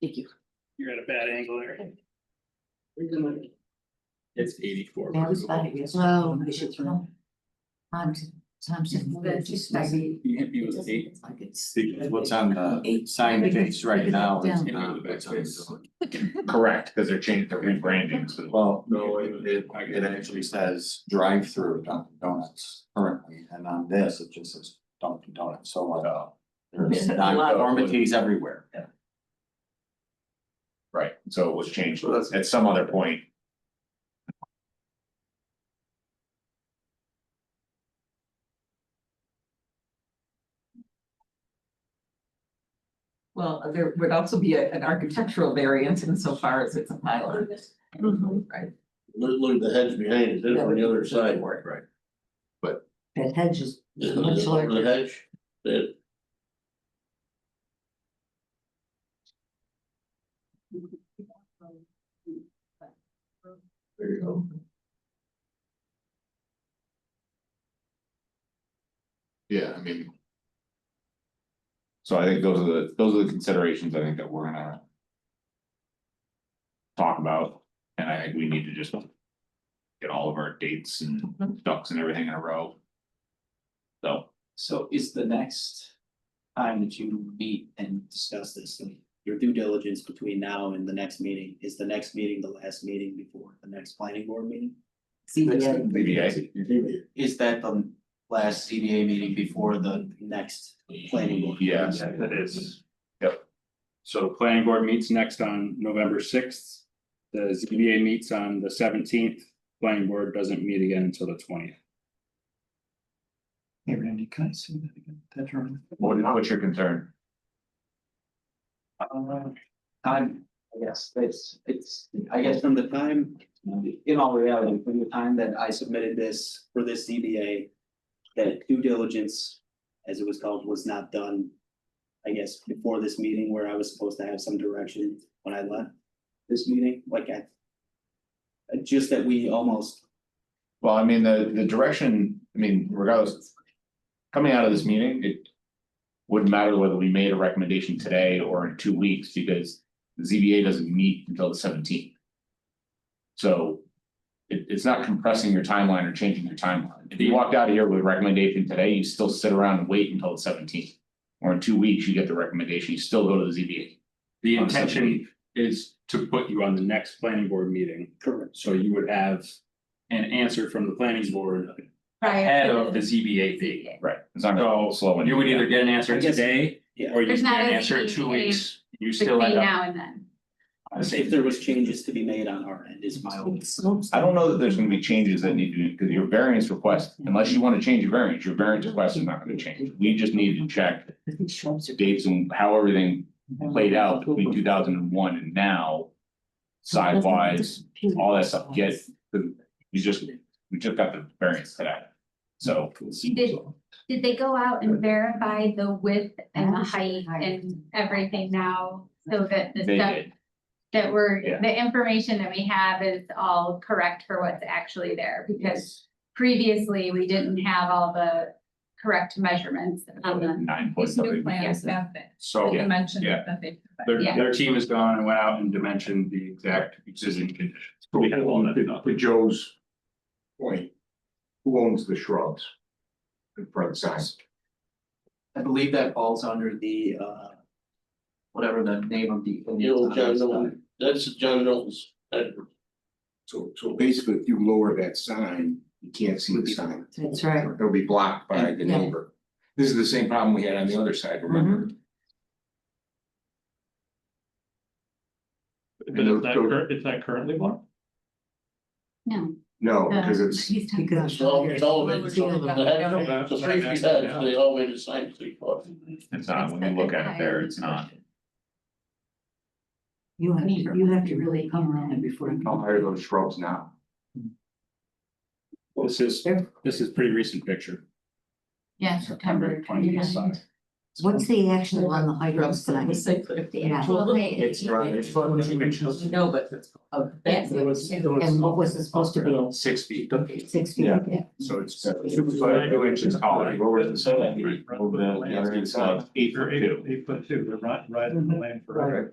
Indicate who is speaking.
Speaker 1: Thank you.
Speaker 2: You're at a bad angle there.
Speaker 3: It's eighty-four.
Speaker 4: That was five years.
Speaker 1: Wow.
Speaker 4: We should throw. Times, times. and we're just maybe-
Speaker 3: The hippie was eight.
Speaker 4: Like it's.
Speaker 5: Because what's on the sign face right now is not what's on the. Correct, because they're changing, they're rebranding, so. Well, no, it, it, it actually says drive-through Dunkin' Donuts currently, and on this, it just says Dunkin' Donuts, so like. uh, There's non-conformities everywhere.
Speaker 3: Yeah.
Speaker 5: Right, so it was changed at some other point.
Speaker 6: Well, there would also be a- an architectural variance insofar as it's a pylon, right?
Speaker 7: Look, look at the hedge behind it, then on the other side.
Speaker 5: Right.
Speaker 4: That hedge is
Speaker 7: The
Speaker 4: much
Speaker 7: the
Speaker 4: larger.
Speaker 7: hedge, that, there you go.
Speaker 5: Yeah, I mean. So I think those are the, those are the considerations I think that we're gonna. Talk about, and I think we need to just. Get all of our dates and ducks and everything in a row. So,
Speaker 3: So is the next time that you meet and discuss this, like, your due diligence between now and the next meeting, is the next meeting the last meeting before the next planning board meeting?
Speaker 4: ZBA.
Speaker 5: ZBA.
Speaker 3: Is that the last CBA meeting before the next planning board?
Speaker 5: Yes.
Speaker 2: That is.
Speaker 5: Yep.
Speaker 2: So the planning board meets next on November sixth. The ZBA meets on the seventeenth. Planning board doesn't meet again until the twentieth.
Speaker 3: Hey Randy, can I see that again? That drawing?
Speaker 5: what, what's your concern?
Speaker 3: Time, I guess, it's, it's, I guess from the time, in all reality, from the time that I submitted this for this ZBA. That due diligence, as it was called, was not done. I guess before this meeting where I was supposed to have some direction when I left this meeting, like I. uh, Just that we almost,
Speaker 5: Well, I mean, the, the direction, I mean, regardless. Coming out of this meeting, it. Wouldn't matter whether we made a recommendation today or in two weeks, because the ZBA doesn't meet until the seventeenth. So. It, it's not compressing your timeline or changing your timeline. If you walked out of here with a recommendation today, you still sit around and wait until the seventeenth. Or in two weeks, you get the recommendation, you still go to the ZBA.
Speaker 2: The
Speaker 5: on the
Speaker 2: intention
Speaker 5: 17th.
Speaker 2: is to put you on the next planning board meeting,
Speaker 3: correct,
Speaker 2: so you would have an answer from the planning board
Speaker 8: Prior
Speaker 2: ahead
Speaker 8: to
Speaker 2: of the ZBA meeting.
Speaker 5: Right. It's not gonna slow
Speaker 2: You would either get an answer
Speaker 3: I guess-
Speaker 2: today
Speaker 3: yeah.
Speaker 2: or you
Speaker 8: There's
Speaker 2: get
Speaker 8: not
Speaker 2: an
Speaker 8: a
Speaker 2: answer in two
Speaker 8: ZBA
Speaker 2: weeks. You still
Speaker 8: between
Speaker 2: end up.
Speaker 8: now and then.
Speaker 2: on the same-
Speaker 3: If there was changes to be made on our end is my own.
Speaker 5: I don't know that there's gonna be changes that need to, be because your variance request, unless you wanna change your variance, your variance request is not gonna change. We just need to check
Speaker 4: These shrubs are-
Speaker 5: dates and how everything played out between two thousand and one and now. Sidewise, all that stuff, yes, the, we just, we just got the variance today, so.
Speaker 8: did. Did they go out and verify the width and the height and everything now? So that the
Speaker 5: They
Speaker 8: stuff
Speaker 5: did,
Speaker 8: that we're,
Speaker 5: Yeah.
Speaker 8: the information that we have is all correct for what's actually there? Because previously, we didn't have all the correct measurements on the.
Speaker 5: nine point something.
Speaker 8: Yes,
Speaker 2: So.
Speaker 5: Yeah.
Speaker 9: mentioned
Speaker 2: Oh, Yeah.
Speaker 9: that they.
Speaker 2: Their,
Speaker 8: Yeah.
Speaker 2: their team has gone and went out and dimensioned the exact existing conditions.
Speaker 5: We had all that done.
Speaker 10: To Joe's point, who owns the shrubs? In front of the sign?
Speaker 3: I believe that falls under the uh. Whatever the name of the.
Speaker 7: The old John Milton, that's the John Milton's, that,
Speaker 10: So, so basically, if you lower that sign, you can't see the sign.
Speaker 4: That's right.
Speaker 10: It'll be blocked by the
Speaker 4: Yeah. Mm-hmm.
Speaker 10: neighbor. This is the same problem we had on the other side, remember?
Speaker 5: Is that cur-
Speaker 10: is that currently blocked?
Speaker 8: No.
Speaker 10: No, because it's,
Speaker 8: He's talking-
Speaker 4: Because-
Speaker 7: it's all, it's elevated,
Speaker 4: See the-
Speaker 7: the hedge, the safety hedge, they elevated sign three foot.
Speaker 5: It's
Speaker 2: uh,
Speaker 5: not, when you look at it there, it's not.
Speaker 4: You have, to- you have to really come around it before you.
Speaker 10: how high are those shrubs now?
Speaker 2: This is, this is pretty recent picture.
Speaker 4: Yeah,
Speaker 2: September 29th.
Speaker 4: What's the actual on the height of
Speaker 6: Shrubs
Speaker 4: the
Speaker 6: that we
Speaker 4: sign?
Speaker 6: say clear.
Speaker 4: Yeah.
Speaker 5: It's right, it's one of the pictures.
Speaker 6: No, but of that.
Speaker 4: Yes, And what was it supposed to be?
Speaker 2: Six feet.
Speaker 4: Six feet?
Speaker 5: Yeah.
Speaker 4: Yeah.
Speaker 2: So it's.
Speaker 5: Two foot, two inches taller. Lower than seven.
Speaker 2: Right.
Speaker 5: Over the, the other side, eight foot two.
Speaker 4: Mhm.
Speaker 5: Right.